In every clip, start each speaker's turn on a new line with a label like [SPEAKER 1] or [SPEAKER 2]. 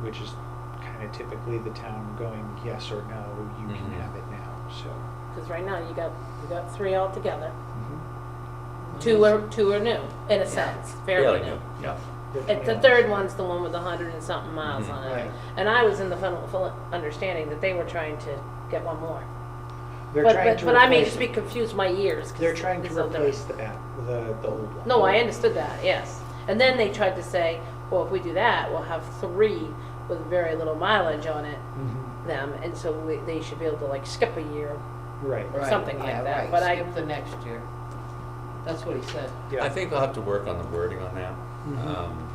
[SPEAKER 1] which is kind of typically the town going, yes or no, you can
[SPEAKER 2] Mhm.
[SPEAKER 1] have it now, so.
[SPEAKER 3] Because right now, you got, you got three altogether.
[SPEAKER 1] mhm.
[SPEAKER 3] Mm-hmm. Two are, two are new, in a sense, fairly new.
[SPEAKER 2] Yeah.
[SPEAKER 3] And the third one's the one with the hundred and something miles
[SPEAKER 2] Mhm.
[SPEAKER 3] on it.
[SPEAKER 1] Right.
[SPEAKER 3] And I was in the full, full understanding that they were trying to get one more.
[SPEAKER 1] They're
[SPEAKER 3] But-
[SPEAKER 1] trying
[SPEAKER 3] but-
[SPEAKER 1] to
[SPEAKER 3] But I may
[SPEAKER 1] replace
[SPEAKER 3] just
[SPEAKER 1] it.
[SPEAKER 3] be confused my ears. 'cause
[SPEAKER 1] They're trying
[SPEAKER 3] it's
[SPEAKER 1] to
[SPEAKER 3] so different.
[SPEAKER 1] replace the app, the, the old one.
[SPEAKER 3] No, I understood that, yes. And then they tried to say, well, if we do that, we'll have three with very little mileage on it,
[SPEAKER 1] Mhm.
[SPEAKER 3] them, and so we, they should be able to like skip a year.
[SPEAKER 1] Right,
[SPEAKER 4] Right,
[SPEAKER 3] something like
[SPEAKER 4] yeah,
[SPEAKER 3] that,
[SPEAKER 4] right,
[SPEAKER 3] but I-
[SPEAKER 4] Skip the next year. That's what he said.
[SPEAKER 1] yeah.
[SPEAKER 2] I think I'll have to work on the wording on that.
[SPEAKER 1] Mhm.
[SPEAKER 2] Um,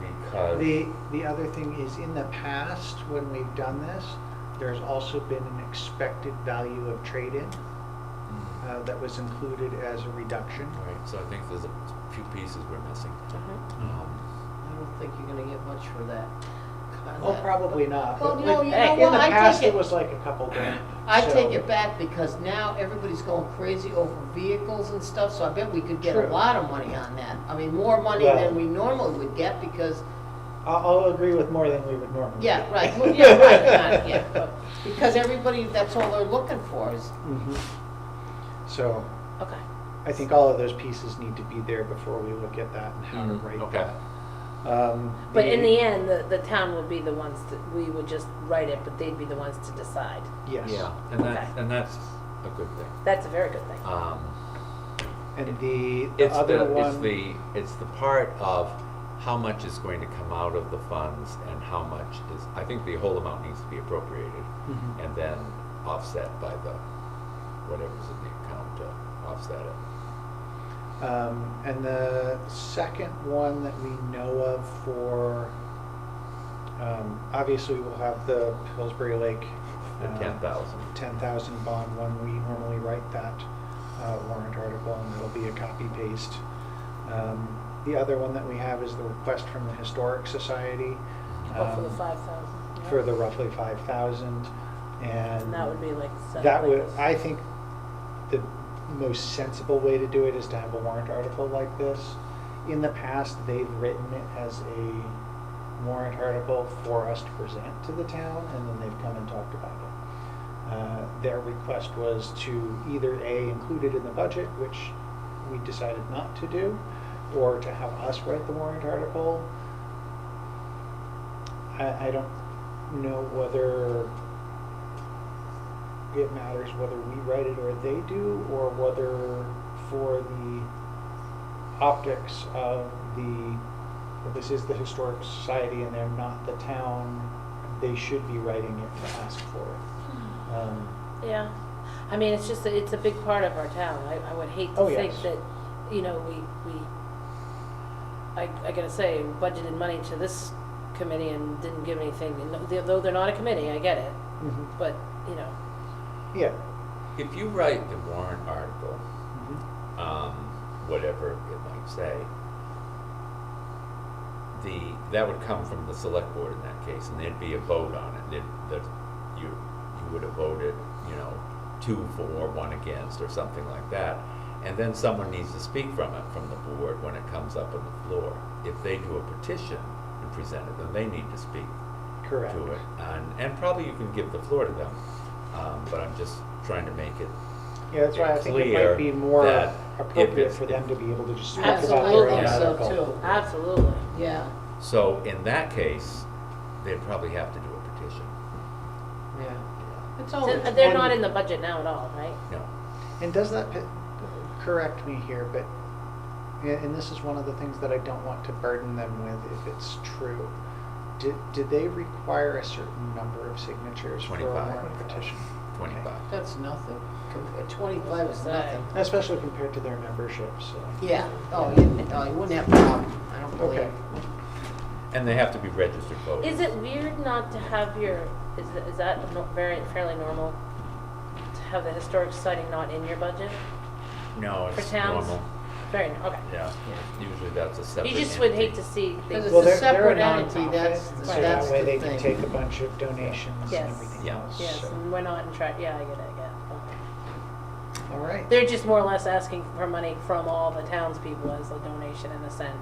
[SPEAKER 2] because
[SPEAKER 1] The, the other thing is, in the past, when we've done this, there's also been an expected value of trade-in
[SPEAKER 2] Mm.
[SPEAKER 1] uh, that was included as a reduction.
[SPEAKER 2] Right, so I think there's a few pieces we're missing.
[SPEAKER 4] I
[SPEAKER 3] Mm-hmm.
[SPEAKER 2] Um,
[SPEAKER 4] don't think you're gonna get much for that. on
[SPEAKER 1] Well,
[SPEAKER 4] that,
[SPEAKER 1] Oh, probably
[SPEAKER 4] but-
[SPEAKER 1] not.
[SPEAKER 4] Well,
[SPEAKER 1] but
[SPEAKER 4] no,
[SPEAKER 1] like-
[SPEAKER 4] you know
[SPEAKER 1] in
[SPEAKER 4] what,
[SPEAKER 1] the
[SPEAKER 4] I
[SPEAKER 1] past,
[SPEAKER 4] take
[SPEAKER 1] it
[SPEAKER 4] it-
[SPEAKER 1] was like a couple grand.
[SPEAKER 4] I
[SPEAKER 1] so-
[SPEAKER 4] take it back because now everybody's going crazy over vehicles and stuff, so I bet we could get a
[SPEAKER 1] True.
[SPEAKER 4] lot of money on that. I mean, more money
[SPEAKER 1] Well-
[SPEAKER 4] than we normally would get because,
[SPEAKER 1] I'll, I'll agree with more than we would normally.
[SPEAKER 4] yeah,
[SPEAKER 1] do.
[SPEAKER 4] right, well, yeah, right, not, yeah,
[SPEAKER 3] but-
[SPEAKER 4] because everybody, that's all they're looking for is,
[SPEAKER 1] Mhm.
[SPEAKER 2] Mm-hmm.
[SPEAKER 1] So
[SPEAKER 3] Okay.
[SPEAKER 1] I think all of those pieces need to be there before we look at that and how to
[SPEAKER 2] Mhm,
[SPEAKER 1] write
[SPEAKER 2] okay.
[SPEAKER 1] that. Um,
[SPEAKER 3] But in the end, the, the town would be the ones that, we would just write it, but they'd be the ones to decide.
[SPEAKER 1] Yes.
[SPEAKER 2] Yeah, and that,
[SPEAKER 3] Okay.
[SPEAKER 2] and that's a good thing.
[SPEAKER 3] That's a very good thing.
[SPEAKER 2] Um,
[SPEAKER 1] And the, the
[SPEAKER 2] it's
[SPEAKER 1] other
[SPEAKER 2] the,
[SPEAKER 1] one.
[SPEAKER 2] it's the, it's the part of how much is going to come out of the funds and how much is, I think the whole amount needs to be appropriated
[SPEAKER 1] Mhm.
[SPEAKER 2] and then offset by the, whatever's in the account to offset it.
[SPEAKER 1] Um, and the second one that we know of for, um, obviously we'll have the Pillsbury Lake.
[SPEAKER 2] The
[SPEAKER 1] um,
[SPEAKER 2] 10,000.
[SPEAKER 1] 10,000 bond when we normally write that uh, warrant article and it'll be a copy paste. Um, the other one that we have is the request from the Historic Society.
[SPEAKER 3] But Oh, for the
[SPEAKER 1] um,
[SPEAKER 3] five thousand.
[SPEAKER 1] For the roughly 5,000 and.
[SPEAKER 3] And that would be like. set up
[SPEAKER 1] That
[SPEAKER 3] like
[SPEAKER 1] would,
[SPEAKER 3] this.
[SPEAKER 1] I think the most sensible way to do it is to have a warrant article like this. In the past, they've written it as a warrant article for us to present to the town, and then they've come and talked about it. Uh, Their request was to either A, include it in the budget, which we decided not to do, or to have us write the warrant article. I, I don't know whether it matters whether we write it or they do, or whether for the optics of the, that this is the Historic Society and they're not the town, they should be writing it to ask for
[SPEAKER 4] Hmm.
[SPEAKER 1] it. Um,
[SPEAKER 3] Yeah, I mean, it's just, that it's a big part of our town. I, I would hate
[SPEAKER 1] Oh,
[SPEAKER 3] to think
[SPEAKER 1] yes.
[SPEAKER 3] that, you know, we, we, I, I gotta say, budgeted money to this committee and didn't give anything, And th- though they're not a committee, I get it,
[SPEAKER 1] mhm.
[SPEAKER 3] but, you know,
[SPEAKER 1] Yeah.
[SPEAKER 2] If you write the warrant article,
[SPEAKER 1] Mhm.
[SPEAKER 2] um, whatever it might say, the, that would come from the select board in that case, and there'd be a vote on it, that, that you, you would have voted, you know, two for, one against, or something like that. And then someone needs to speak from it, from the board, when it comes up on the floor. If they do a petition and present it, then they need to speak
[SPEAKER 1] Correct.
[SPEAKER 2] to it. And, and probably you can give the floor to them, um, but I'm just trying to make it.
[SPEAKER 1] Yeah, that's why I think it might be
[SPEAKER 2] clear
[SPEAKER 1] more
[SPEAKER 2] that if
[SPEAKER 1] appropriate
[SPEAKER 2] it's-
[SPEAKER 1] for them to be able to just speak about their
[SPEAKER 4] absolutely,
[SPEAKER 1] own
[SPEAKER 3] Yeah.
[SPEAKER 4] so
[SPEAKER 1] article.
[SPEAKER 4] too,
[SPEAKER 3] absolutely.
[SPEAKER 4] yeah,
[SPEAKER 2] So in that case, they'd probably have to do a petition.
[SPEAKER 4] yeah.
[SPEAKER 2] Yeah.
[SPEAKER 4] It's
[SPEAKER 3] So,
[SPEAKER 4] always
[SPEAKER 3] uh, They're not
[SPEAKER 4] one-
[SPEAKER 3] in the budget now at all, right?
[SPEAKER 2] No,
[SPEAKER 1] And does that, pe- correct me here, but, and and this is one of the things that I don't want to burden them with if it's true. Did, did they require a certain number of signatures for a
[SPEAKER 2] 25.
[SPEAKER 1] warrant petition? Okay.
[SPEAKER 2] twenty-five.
[SPEAKER 4] That's nothing. Com- Twenty-five is nothing.
[SPEAKER 1] Especially compared to their membership, so.
[SPEAKER 4] Yeah, oh, you, oh, you wouldn't have a problem, I don't
[SPEAKER 1] Okay.
[SPEAKER 4] believe.
[SPEAKER 2] And they have to be registered voters.
[SPEAKER 3] Is it weird not to have your, is, th- is that no- very, fairly normal? To have the historic society not in your budget
[SPEAKER 2] No,
[SPEAKER 3] for
[SPEAKER 2] it's
[SPEAKER 3] towns?
[SPEAKER 2] normal.
[SPEAKER 3] Very, okay.
[SPEAKER 2] Yeah, usually that's a separate
[SPEAKER 3] You just would hate
[SPEAKER 2] entity.
[SPEAKER 3] to see. they-
[SPEAKER 4] 'Cause it's
[SPEAKER 1] Well,
[SPEAKER 4] a
[SPEAKER 1] they're- they're
[SPEAKER 4] separate entity,
[SPEAKER 1] nonprofit,
[SPEAKER 4] that's-
[SPEAKER 1] and So
[SPEAKER 3] that's
[SPEAKER 1] that way
[SPEAKER 4] the
[SPEAKER 1] they can
[SPEAKER 4] thing.
[SPEAKER 1] take a bunch of donations and
[SPEAKER 3] Yes.
[SPEAKER 1] everything
[SPEAKER 2] Yeah.
[SPEAKER 1] else.
[SPEAKER 3] Yes,
[SPEAKER 1] so.
[SPEAKER 3] and we're not in track, yeah, I get it, I get it. Okay.
[SPEAKER 1] All right.
[SPEAKER 3] They're just more or less asking for money from all the townspeople as a donation in a sense.